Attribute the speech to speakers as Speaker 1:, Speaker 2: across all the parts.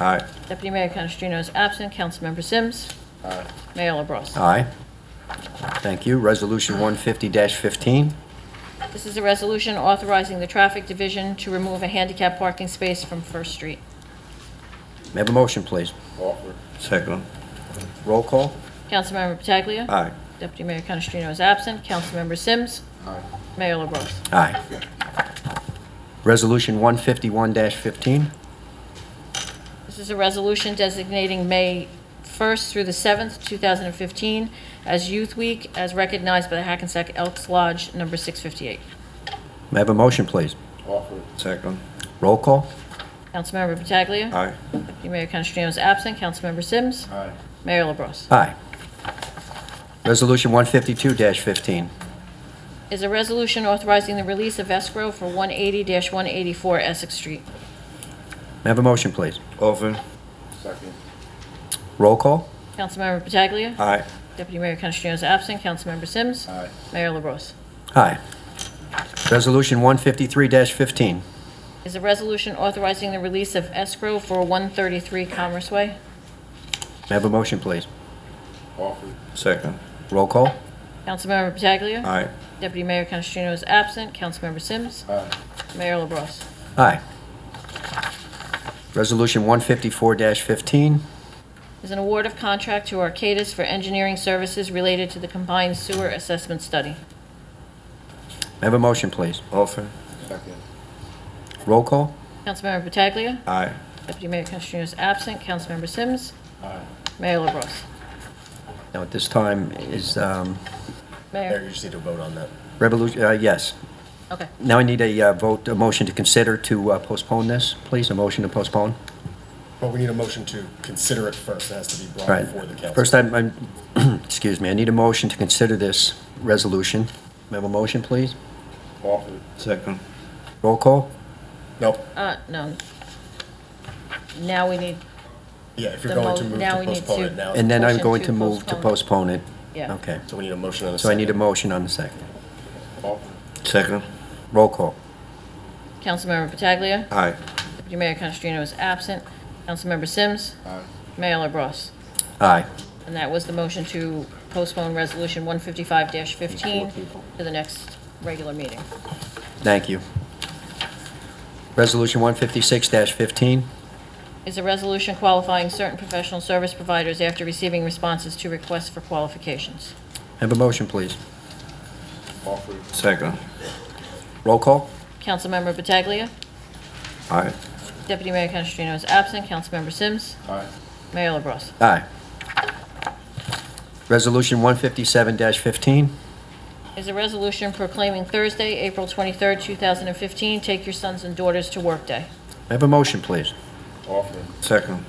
Speaker 1: Aye.
Speaker 2: Deputy Mayor Canestrino is absent. Councilmember Sims? Mayor LaBrus?
Speaker 1: Aye. Thank you. Resolution 150-15.
Speaker 2: This is a resolution authorizing the Traffic Division to remove a handicap parking space from First Street.
Speaker 1: May I have a motion, please?
Speaker 3: Offer.
Speaker 1: Second. Roll call?
Speaker 2: Councilmember Pataglia.
Speaker 1: Aye.
Speaker 2: Deputy Mayor Canestrino is absent. Councilmember Sims. Mayor LaBrus.
Speaker 1: Aye. Resolution 151-15.
Speaker 2: This is a resolution designating May 1st through the 7th, 2015, as Youth Week, as recognized by the Hackensack Elks Lodge Number 658.
Speaker 1: May I have a motion, please?
Speaker 3: Offer.
Speaker 1: Second. Roll call?
Speaker 2: Councilmember Pataglia.
Speaker 1: Aye.
Speaker 2: Deputy Mayor Canestrino is absent. Councilmember Sims.
Speaker 3: Aye.
Speaker 2: Mayor LaBrus.
Speaker 1: Aye. Resolution 152-15.
Speaker 2: Is a resolution authorizing the release of escrow for 180-184 Essex Street.
Speaker 1: May I have a motion, please? Offer.
Speaker 3: Second.
Speaker 1: Roll call?
Speaker 2: Councilmember Pataglia.
Speaker 1: Aye.
Speaker 2: Deputy Mayor Canestrino is absent. Councilmember Sims.
Speaker 3: Aye.
Speaker 2: Mayor LaBrus.
Speaker 1: Aye. Resolution 153-15.
Speaker 2: Is a resolution authorizing the release of escrow for 133 Commerce Way.
Speaker 1: May I have a motion, please?
Speaker 3: Offer.
Speaker 1: Second. Roll call?
Speaker 2: Councilmember Pataglia.
Speaker 1: Aye.
Speaker 2: Deputy Mayor Canestrino is absent. Councilmember Sims.
Speaker 3: Aye.
Speaker 2: Mayor LaBrus.
Speaker 1: Aye. Resolution 154-15.
Speaker 2: Is an award of contract to Arcadis for engineering services related to the combined sewer assessment study.
Speaker 1: May I have a motion, please? Offer.
Speaker 3: Second.
Speaker 1: Roll call?
Speaker 2: Councilmember Pataglia.
Speaker 1: Aye.
Speaker 2: Deputy Mayor Canestrino is absent. Councilmember Sims.
Speaker 3: Aye.
Speaker 2: Mayor LaBrus.
Speaker 1: Now, at this time, is, um,
Speaker 2: Mayor.
Speaker 4: just need to vote on that.
Speaker 1: revolution, uh, yes.
Speaker 2: Okay.
Speaker 1: Now I need a uh, vote, a motion to consider to uh, postpone this, please, a motion to postpone.
Speaker 4: But we need a motion to consider it first. It has to be
Speaker 1: All right.
Speaker 4: brought before the council.
Speaker 1: First, I'm, I'm- excuse me, I need a motion to consider this resolution. May I have a motion, please?
Speaker 3: Offer.
Speaker 1: Second. Roll call?
Speaker 4: Nope.
Speaker 2: Uh, no. Now we need,
Speaker 4: Yeah, if you're
Speaker 2: The
Speaker 4: going to
Speaker 2: mo-
Speaker 4: move
Speaker 2: now we
Speaker 4: to
Speaker 2: need
Speaker 4: postpone
Speaker 2: to-
Speaker 4: it now.
Speaker 1: And then I'm
Speaker 2: Motion
Speaker 1: going
Speaker 2: to
Speaker 1: to move to
Speaker 2: postpone.
Speaker 1: postpone it.
Speaker 2: yeah.
Speaker 1: Okay.
Speaker 4: So we need a motion and a
Speaker 1: So I
Speaker 4: second.
Speaker 1: need a motion on the second.
Speaker 3: Offer.
Speaker 1: Second. Roll call.
Speaker 2: Councilmember Pataglia.
Speaker 1: Aye.
Speaker 2: Deputy Mayor Canestrino is absent. Councilmember Sims.
Speaker 3: Aye.
Speaker 2: Mayor LaBrus.
Speaker 1: Aye.
Speaker 2: And that was the motion to postpone Resolution 155-15 to the next regular meeting.
Speaker 1: Thank you. Resolution 156-15.
Speaker 2: Is a resolution qualifying certain professional service providers after receiving responses to requests for qualifications.
Speaker 1: Have a motion, please.
Speaker 3: Offer.
Speaker 1: Second. Roll call?
Speaker 2: Councilmember Pataglia.
Speaker 1: Aye.
Speaker 2: Deputy Mayor Canestrino is absent. Councilmember Sims.
Speaker 3: Aye.
Speaker 2: Mayor LaBrus.
Speaker 1: Aye. Resolution 157-15.
Speaker 2: Is a resolution proclaiming Thursday, April 23rd, 2015, Take Your Sons and Daughters to Work Day.
Speaker 1: Have a motion, please.
Speaker 3: Offer.
Speaker 1: Second.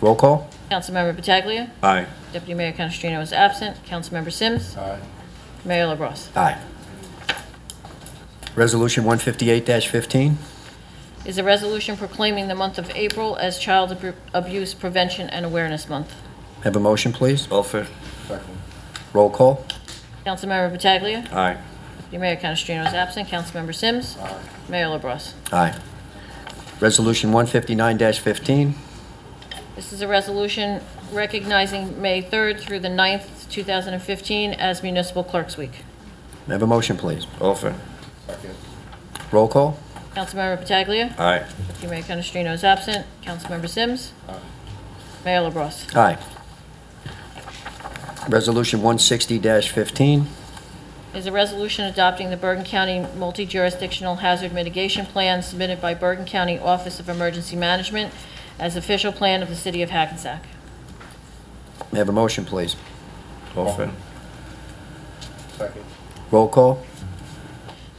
Speaker 1: Roll call?
Speaker 2: Councilmember Pataglia.
Speaker 1: Aye.
Speaker 2: Deputy Mayor Canestrino is absent. Councilmember Sims.
Speaker 3: Aye.
Speaker 2: Mayor LaBrus.
Speaker 1: Aye. Resolution 158-15.
Speaker 2: Is a resolution proclaiming the month of April as Child Abu- Abuse Prevention and Awareness Month.
Speaker 1: Have a motion, please. Offer.
Speaker 3: Second.
Speaker 1: Roll call?
Speaker 2: Councilmember Pataglia.
Speaker 1: Aye.
Speaker 2: Deputy Mayor Canestrino is absent. Councilmember Sims.
Speaker 3: Aye.
Speaker 2: Mayor LaBrus.
Speaker 1: Aye. Resolution 159-15.
Speaker 2: This is a resolution recognizing May 3rd through the 9th, 2015, as Municipal Clerks Week.
Speaker 1: May I Have a motion, please. Offer.
Speaker 3: Second.
Speaker 1: Roll call?
Speaker 2: Councilmember Pataglia.
Speaker 1: Aye.
Speaker 2: Deputy Mayor Canestrino is absent. Councilmember Sims.
Speaker 3: Aye.
Speaker 2: Mayor LaBrus.
Speaker 1: Aye. Resolution 160-15.
Speaker 2: Is a resolution adopting the Bergen County Multi-Jurisdictional Hazard Mitigation Plan submitted by Bergen County Office of Emergency Management as official plan of the City of Hackensack.
Speaker 1: May I have a motion, please?
Speaker 3: Offer. Second.
Speaker 1: Roll call?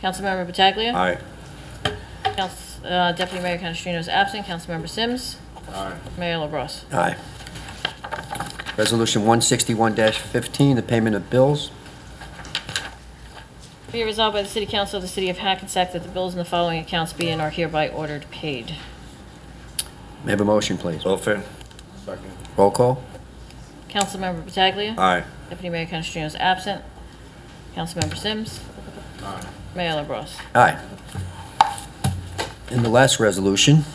Speaker 2: Councilmember Pataglia.
Speaker 1: Aye.
Speaker 2: Couns- uh, Deputy Mayor Canestrino is absent. Councilmember Sims.
Speaker 3: Aye.
Speaker 2: Mayor LaBrus.
Speaker 1: Aye. Resolution 161-15, the payment of bills.
Speaker 2: Be it resolved by the City Council of the City of Hackensack that the bills in the following accounts be and are hereby ordered paid.
Speaker 1: May I have a motion, please?
Speaker 5: Offer.
Speaker 3: Second.
Speaker 1: Roll call?
Speaker 2: Councilmember Pataglia.
Speaker 5: Aye.
Speaker 2: Deputy Mayor Canestrino is absent. Councilmember Sims.
Speaker 3: Aye.
Speaker 2: Mayor LaBrus.
Speaker 1: Aye. And the last resolution